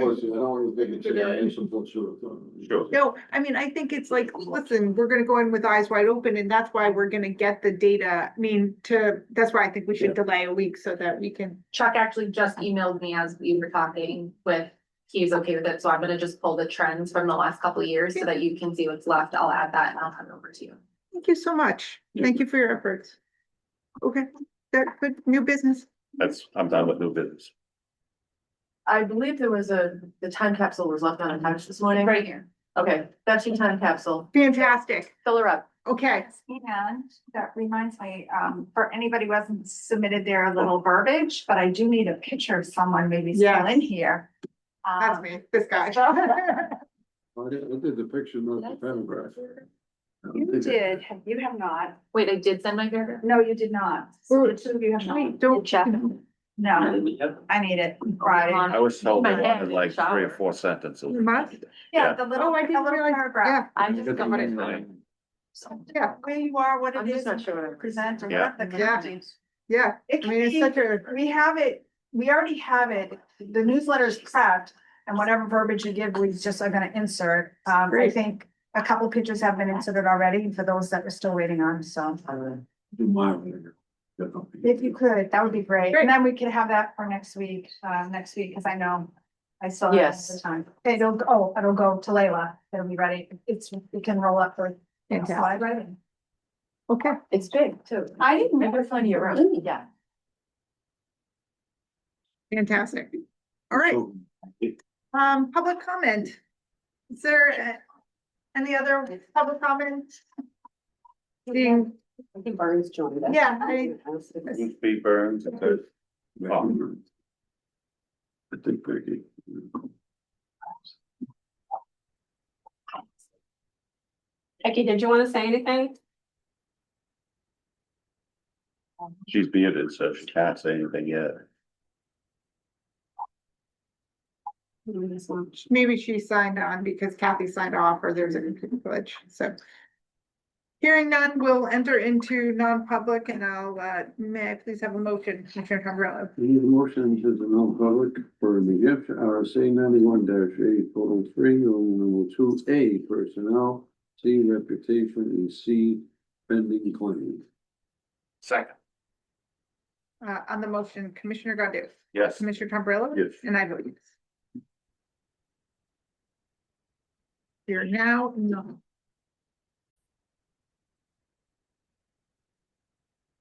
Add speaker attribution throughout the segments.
Speaker 1: Well, see, I don't want to take a chance and put sure.
Speaker 2: Sure.
Speaker 3: No, I mean, I think it's like, listen, we're gonna go in with eyes wide open and that's why we're gonna get the data. I mean, to, that's why I think we should delay a week so that we can.
Speaker 4: Chuck actually just emailed me as we were talking with, he's okay with it, so I'm gonna just pull the trends from the last couple of years so that you can see what's left. I'll add that and I'll hand it over to you.
Speaker 3: Thank you so much.
Speaker 1: Yeah.
Speaker 3: Thank you for your efforts. Okay, that good, new business.
Speaker 2: That's, I'm done with new business.
Speaker 5: I believe there was a, the time capsule was left unattached this morning.
Speaker 4: Right here.
Speaker 5: Okay, that's your time capsule.
Speaker 3: Fantastic.
Speaker 5: Fill her up.
Speaker 3: Okay,
Speaker 6: And that reminds me, um, for anybody who hasn't submitted their little verbiage, but I do need a picture of someone maybe still
Speaker 3: Yes.
Speaker 6: in here.
Speaker 3: that's
Speaker 4: Uh,
Speaker 6: Um,
Speaker 3: me, this guy.
Speaker 1: I did, I did the picture, not the paragraph. I don't
Speaker 6: You
Speaker 1: think I-
Speaker 6: did, you have not.
Speaker 4: Wait, I did send my paragraph?
Speaker 6: No, you did not.
Speaker 3: Ooh.
Speaker 6: The two of you have
Speaker 3: Wait,
Speaker 6: not.
Speaker 3: don't-
Speaker 4: Check.
Speaker 6: No, I need it Friday.
Speaker 2: I was told I
Speaker 4: My head
Speaker 2: wanted like
Speaker 4: shower.
Speaker 2: three or four sentences.
Speaker 3: You must.
Speaker 2: Yeah.
Speaker 6: Yeah, the little,
Speaker 3: Oh, I
Speaker 6: the
Speaker 3: didn't
Speaker 6: little
Speaker 3: realize, yeah,
Speaker 6: paragraph.
Speaker 4: I
Speaker 1: I
Speaker 4: just
Speaker 1: got the
Speaker 4: got
Speaker 1: one
Speaker 4: it.
Speaker 1: line.
Speaker 3: yeah,
Speaker 6: Where you are, what
Speaker 4: I'm
Speaker 6: it
Speaker 4: just
Speaker 6: is,
Speaker 4: not sure what I
Speaker 6: and present or
Speaker 2: Yeah.
Speaker 6: what the
Speaker 3: Yeah.
Speaker 6: county.
Speaker 3: yeah. I
Speaker 6: It can
Speaker 3: mean, it's
Speaker 6: be,
Speaker 3: such a,
Speaker 6: we have it, we already have it, the newsletter is prepped, and whatever verbiage you give, we just are gonna insert. Um, I
Speaker 3: Great.
Speaker 6: think a couple pictures have been inserted already, for those that we're still waiting on, so.
Speaker 1: Do my one. That's not-
Speaker 6: If you could, that would be great, and then we could have that for next week, uh, next week, because I know I still have
Speaker 5: Yes.
Speaker 6: the time. It'll, oh, it'll go to Layla, it'll be ready, it's, we can roll up for you know, slide right in.
Speaker 3: okay,
Speaker 5: It's big too. I didn't remember finding your room. Yeah.
Speaker 3: fantastic. All right.
Speaker 1: So,
Speaker 3: Um, public comment. Is there uh, any other public comment? Being,
Speaker 5: I think Barney's joined us.
Speaker 3: yeah, I,
Speaker 2: Ruth B. Burns, and there's- Oh.
Speaker 1: I think Becky.
Speaker 7: Becky, did you want to say anything?
Speaker 2: she's muted, so she can't say anything yet.
Speaker 3: maybe she signed on because Kathy signed off or there's a computer glitch, so. Hearing none, we'll enter into non-public and I'll, uh, may I please have a motion, Commissioner Tombrilla?
Speaker 1: Need a motion to the non-public for New Hampshire RSA ninety-one dash eight, total three, number two, A, personnel, C, reputation, and C, pending claim.
Speaker 2: Second.
Speaker 3: Uh, on the motion, Commissioner Godu,
Speaker 2: Yes.
Speaker 3: Commissioner Tombrilla?
Speaker 2: Yes.
Speaker 3: And I vote yes. Here now, no.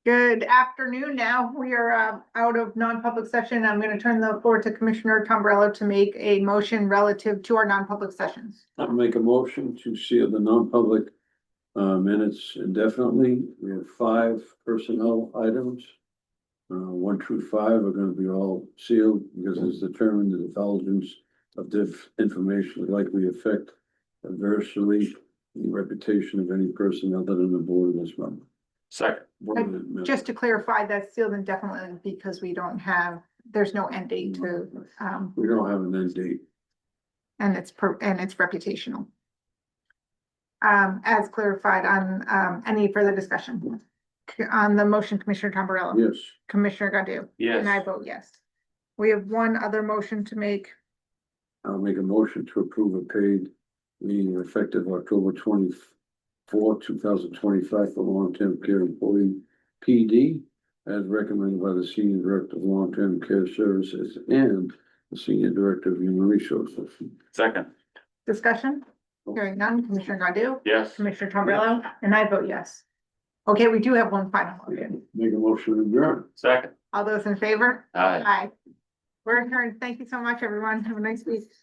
Speaker 3: Good afternoon. Now we are um, out of non-public session. I'm going to turn the floor to Commissioner Tombrello to make a motion relative to our non-public sessions.
Speaker 1: I'll make a motion to seal the non-public uh minutes indefinitely. We have five personnel items. Uh, one through five are gonna be all sealed because it's determined that the intelligence of this information would likely affect adversely the reputation of any person other than the board of this member.
Speaker 2: Second.
Speaker 1: Board of the member.
Speaker 3: Just to clarify, that's sealed indefinitely because we don't have, there's no end date to, um,
Speaker 1: We don't have an end date.
Speaker 3: and it's, per- and it's reputational. Um, as clarified on, um, any further discussion C- on the motion, Commissioner Tombrello?
Speaker 1: Yes,
Speaker 3: Commissioner Godu? And I vote yes. We have one other motion to make.
Speaker 1: I'll make a motion to approve a paid meeting effective October twenty-four, two thousand twenty-five for long-term care employee PD as recommended by the Senior Director of Long-Term Care Services and the Senior Director of Human Resources.
Speaker 2: Second.
Speaker 3: Discussion? Hearing none. Commissioner Godu?
Speaker 2: Yes.
Speaker 3: Commissioner Tombrello? And I vote yes. Okay, we do have one final motion.
Speaker 1: Make a motion to adjourn.
Speaker 2: Second.
Speaker 3: All those in favor?
Speaker 2: Aye.
Speaker 3: Aye. We're adjourned. Thank you so much, everyone. Have a nice week.